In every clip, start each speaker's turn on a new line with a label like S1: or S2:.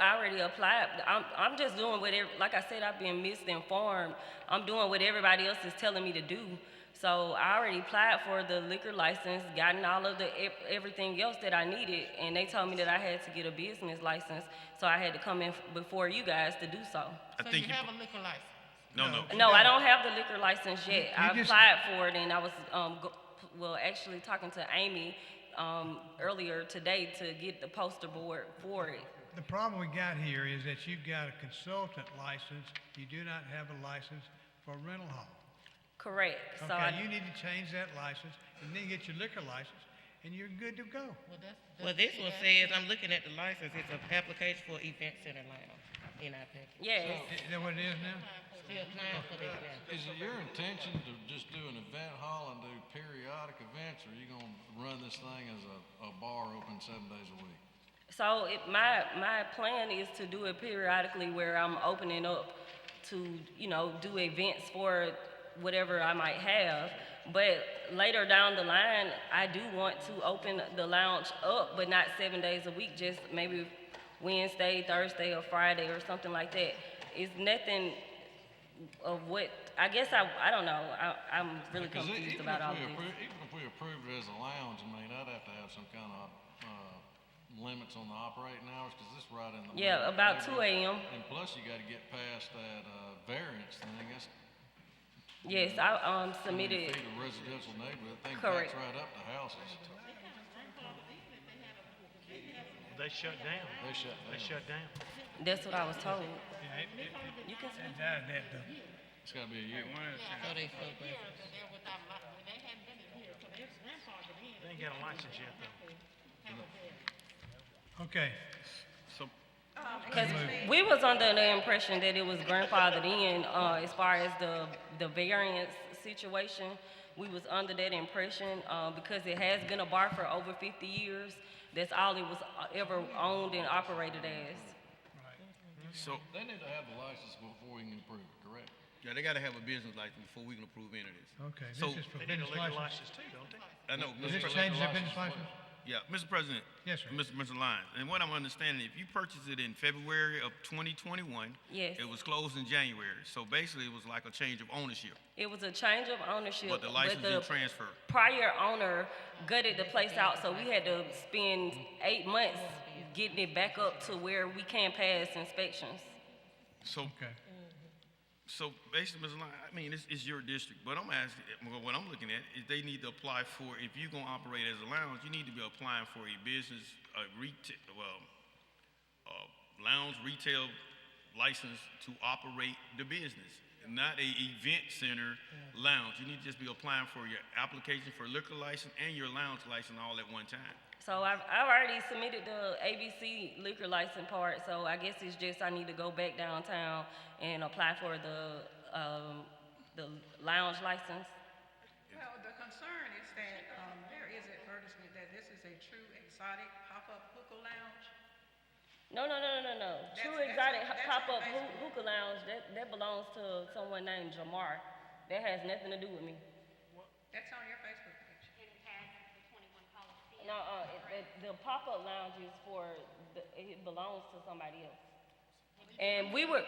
S1: I already applied. I'm, I'm just doing what, ev- like I said, I've been misinformed. I'm doing what everybody else is telling me to do. So I already applied for the liquor license, gotten all of the, ev- everything else that I needed, and they told me that I had to get a business license, so I had to come in f- before you guys to do so.
S2: So you have a liquor license?
S3: No, no.
S1: No, I don't have the liquor license yet. I
S4: you just-
S1: applied for it, and I was, um, go- well, actually talking to Amy, um, earlier today to get the poster board for it.
S4: The problem we got here is that you've got a consultant license, you do not have a license for a rental hall.
S1: Correct, so I.
S4: Okay, you need to change that license and then get your liquor license and you're good to go.
S2: Well, that's- that's
S5: Well,
S2: what
S5: this
S2: she
S5: one
S2: asked.
S5: says, I'm looking at the license, it's an application for event center lounge in our package.
S1: Yes,
S4: Is that what it is now?
S5: She applying for that now.
S6: Is it your intention to just do an event hall and do periodic events, or are you gonna run this thing as a, a bar open seven days a week?
S1: so it, my, my plan is to do it periodically where I'm opening up to, you know, do events for whatever I might have. But later down the line, I do want to open the lounge up, but not seven days a week, just maybe Wednesday, Thursday, or Friday, or something like that. It's nothing of what, I guess I, I don't know, I, I'm really
S6: Because e-
S1: confused
S6: even
S1: about all
S6: if we
S1: of this.
S6: appro- Even if we approved it as a lounge, I mean, I'd have to have some kind of, uh, limits on the operating hours, because this right in the.
S1: Yeah,
S6: middle of
S1: about
S6: the
S1: 2 a.m..
S6: And plus, you gotta get past that, uh, variance thing, that's
S1: Yes, I, um, submitted.
S6: twenty feet of residential neighborhood, that thing
S1: Correct.
S6: backs right up to houses.
S7: They shut down.
S6: They shut down.
S7: They shut down.
S1: That's what I was told.
S4: Yeah, it- it- it-
S1: You can
S4: it's out of that, though.
S6: It's gotta be a year.
S5: So they so bad.
S2: They're without li- they hadn't been in here, 'cause they was grandfathered in.
S7: They ain't got a license yet, though.
S4: Okay,
S1: Because we was under the impression that it was grandfathered in, uh, as far as the, the variance situation. We was under that impression, uh, because it has been a bar for over fifty years. That's all it was uh, ever owned and operated as.
S8: So,
S6: They need to have the license before we can approve it, correct?
S8: yeah, they gotta have a business license before we can approve any of this.
S4: okay,
S8: So-
S4: this is for
S7: They need a
S4: business
S7: legal
S4: license.
S7: license too, don't they?
S8: I know,
S4: Does
S8: Mr.
S4: this
S8: President,
S4: change the business license?
S8: yeah, Mr. President.
S4: Yes, sir.
S8: Mr. Mr. Lyons, and what I'm understanding, if you purchased it in February of twenty twenty-one.
S1: Yes.
S8: It was closed in January, so basically it was like a change of ownership,
S1: It was a change of ownership.
S8: but the license
S1: the
S8: didn't transfer.
S1: Prior owner gutted the place out, so we had to spend eight months getting it back up to where we can pass inspections.
S8: So,
S4: Okay,
S8: so basically, Mr. Lyons, I mean, it's, it's your district, but I'm asking, well, what I'm looking at is they need to apply for, if you're gonna operate as a lounge, you need to be applying for a business, a retail, well, a lounge retail license to operate the business, not a event center lounge. You need to just be applying for your application for liquor license and your lounge license all at one time.
S1: So I've, I've already submitted the ABC liquor license part, so I guess it's just I need to go back downtown and apply for the, um, the lounge license.
S9: Well, the concern is that um, there is advertisement that this is a true exotic pop-up hookah lounge.
S1: No, no, no, no, no, no. True
S9: That's- that's-
S1: Exotic
S9: that's
S1: Pop-Up
S9: amazing.
S1: hoo- Hookah Lounge, that, that belongs to someone named Jamar. That has nothing to do with me.
S9: That's on your Facebook page.
S1: No, uh, it- it- the pop-up lounge is for, the- it belongs to somebody else. And we were,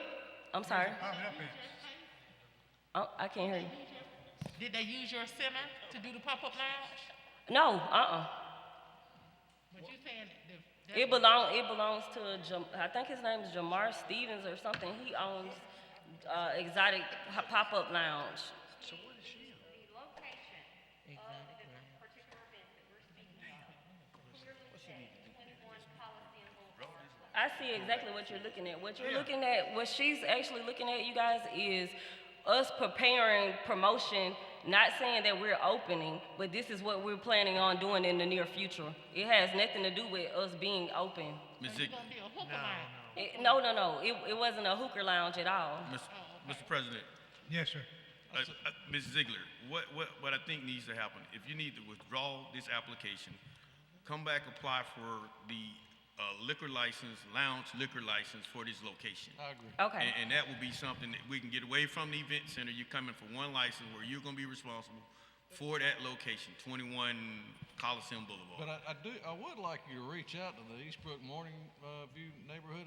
S1: I'm sorry,
S4: pop it up here.
S1: Oh, I can't hear you.
S2: Did they use your center to do the pop-up lounge?
S1: No, uh-uh.
S2: But you saying the.
S1: It belong, it belongs to, Jam- I think his name is Jamar Stevens or something. He owns uh, Exotic Ho- Pop-Up Lounge.
S7: So what is she in?
S1: I see exactly what you're looking at. What you're looking at, what she's actually looking at, you guys, is us preparing promotion, not saying that we're opening, but this is what we're planning on doing in the near future. It has nothing to do with us being open.
S8: Ms.
S2: It's
S8: Ziegler.
S2: gonna be a hookah lounge.
S1: It- no, no, no, it, it wasn't a hooker lounge at all.
S8: Mr. Mr. President,
S4: Yes, sir.
S8: Uh, uh, Ms. Ziegler, what, what, what I think needs to happen, if you need to withdraw this application, come back, apply for the uh, liquor license, lounge liquor license for this location.
S6: I agree.
S1: Okay,
S8: And, and that will be something that we can get away from the event center. You're coming for one license where you're gonna be responsible for that location, twenty-one Coliseum Boulevard.
S6: But I, I do, I would like you to reach out to the Eastbrook Morning, uh, View Neighborhood